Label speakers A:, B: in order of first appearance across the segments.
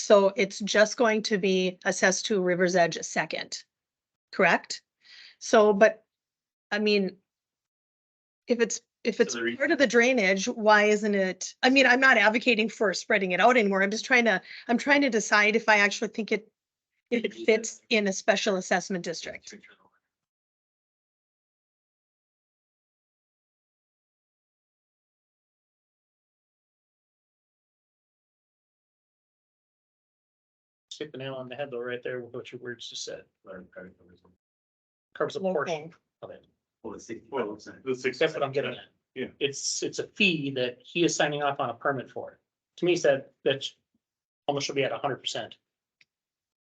A: So it's just going to be assessed to River's Edge second, correct? So, but, I mean, if it's, if it's
B: the re-
A: part of the drainage, why isn't it? I mean, I'm not advocating for spreading it out anymore. I'm just trying to, I'm trying to decide if I actually think it, if it fits in a special assessment district.
B: Hit the nail on the head though, right there with what your words just said. Covers a portion
A: local.
B: of it.
C: Well, it's sixty
D: Well, the six.
B: That's what I'm getting at.
D: Yeah.
B: It's, it's a fee that he is signing off on a permit for. To me, it's that, that's almost should be at hundred percent.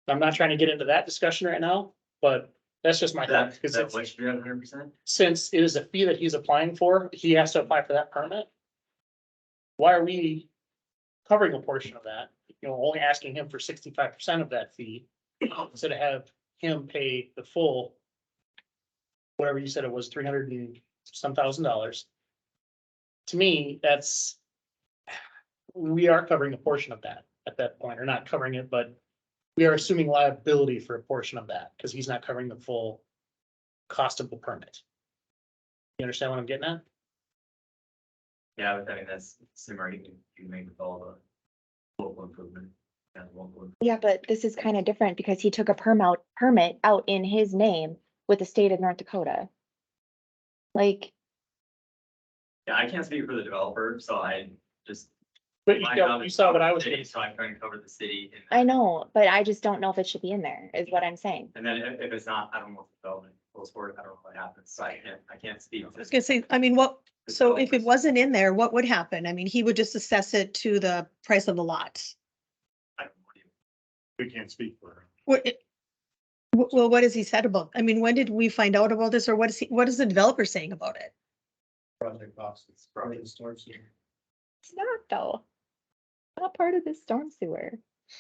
B: I'm not trying to get into that discussion right now, but that's just my thought.
C: That,
B: 'cause
C: that
B: it's-
C: way should be hundred percent?
B: since it is a fee that he's applying for, he has to apply for that permit. Why are we covering a portion of that? You know, only asking him for sixty-five percent of that fee, instead of have him pay the full. Whatever you said it was, three hundred and some thousand dollars. To me, that's. We are covering a portion of that at that point, or not covering it, but we are assuming liability for a portion of that, because he's not covering the full cost of the permit. You understand what I'm getting at?
C: Yeah, but I mean, that's similar, you can, you can make with all the local improvement. and local-
E: Yeah, but this is kind of different because he took a permit, permit out in his name with the state of North Dakota. Like,
C: Yeah, I can't speak for the developer, so I just.
B: But you
C: my
B: know,
C: job
B: you
C: is
B: saw
C: cover
B: what I
C: the
B: was
C: city,
B: getting.
C: So I'm trying to cover the city. in that.
E: I know, but I just don't know if it should be in there, is what I'm saying.
C: And then if, if it's not, I don't know if the development goes forward, I don't know what happens, so I can't, I can't speak.
A: I was gonna say, I mean, what, so if it
C: was,
A: wasn't in there, what would happen? I mean, he would just assess it to the price of the lot.
C: I don't know.
D: We can't speak for her.
A: What, it- wh- well, what has he said about, I mean, when did we find out about this or what is he, what is the developer saying about it?
C: Project costs, it's probably
E: It's not though. Not part of the storm sewer.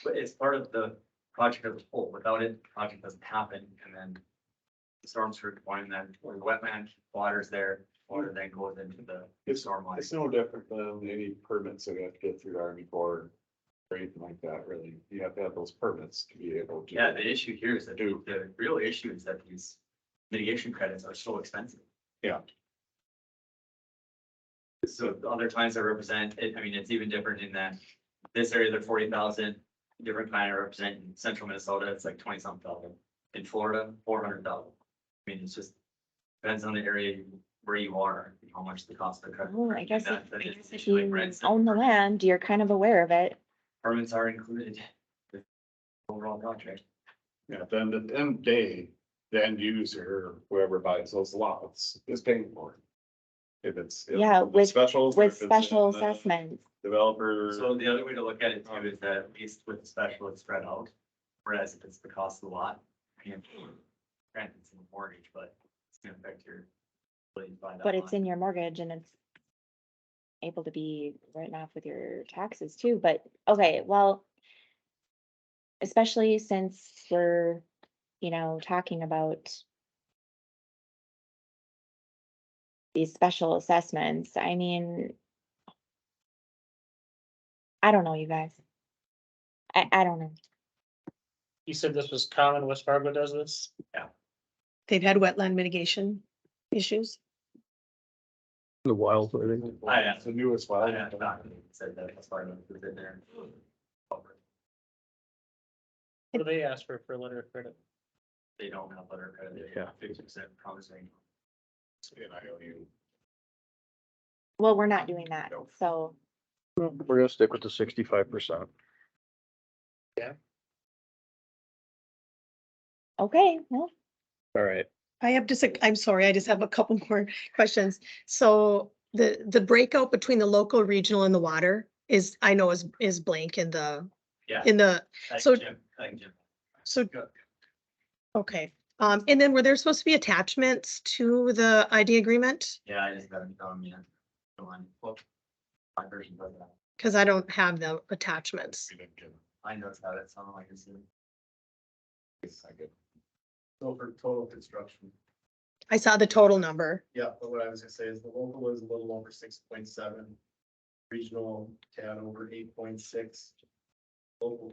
C: But it's part of the project as a whole. Without it, the project doesn't happen and then the storms are going then, or the wetland, water's there, water then goes into the storm line.
D: It's no different than any permits that we have to get through Army Corps or anything like that, really. You have to have those permits to be able to.
C: Yeah, the issue here is that
D: Do.
C: the real issue is that these mitigation credits are so expensive.
D: Yeah.
C: So the other times I represent, it, I mean, it's even different in that this area, they're forty thousand, different kind I represent in central Minnesota, it's like twenty something thousand. In Florida, four hundred thousand. I mean, it's just depends on the area you- where you are, and how much the cost of the credit.
E: Oh, I guess
C: that-
E: if-
C: that
E: I
C: is
E: guess
C: an
E: if
C: issue, like
E: you
C: rents and
E: own the
C: permits.
E: land, you're kind of aware of it.
C: Permits are included. with the Overall project.
D: Yeah, then at the end of the day, the end user, whoever buys those lots is paying for it. If it's. if
E: Yeah,
D: it's
E: with-
D: Specials.
E: With
D: if it's in
E: special
D: the
E: assessments,
D: Developer,
C: So the other way to look at it too is that at least with the special, it's spread out, whereas if it's the cost of the lot, I mean, granted, it's in the mortgage, but it's gonna affect your. ability to buy that
E: but it's
C: lot.
E: in your mortgage and it's able to be written off with your taxes too, but, okay, well, especially since we're, you know, talking about these special assessments, I mean, I don't know, you guys. I, I don't know.
B: You said this was common, West Fargo does this?
A: They've had wetland mitigation issues.
F: The wild, I think.
C: I know.
D: the newest
C: I
D: one.
C: don't know, I said that, that's why I don't put it in there.
B: What do they ask for, for a letter of credit?
C: They don't have letter of credit.
F: Yeah.
C: Fifty percent promising.
D: In IOU.
E: Well, we're not doing that,
D: Nope.
E: so
F: We're gonna stick with the sixty-five percent.
E: okay, well,
F: All right.
A: I have just, a- I'm sorry, I just have a couple more questions. So the, the breakout between the local, regional and the water is, I know is, is blank in the,
C: Yeah.
A: in the,
C: Thank
A: So-
C: Jim, thank Jim.
A: so,
C: Go.
A: okay. Um, and then were there supposed to be attachments to the ID agreement?
C: Yeah, I just got it on me. Go on. Well, My version does that.
A: Cause I don't have the attachments.
D: We didn't get it.
C: I know it's how that sounded like it's. in-
D: I get it.
G: So for total construction,
A: I saw the total number.
G: yeah, but what I was gonna say is the local was a little over six point seven. Regional had over eight point six. Local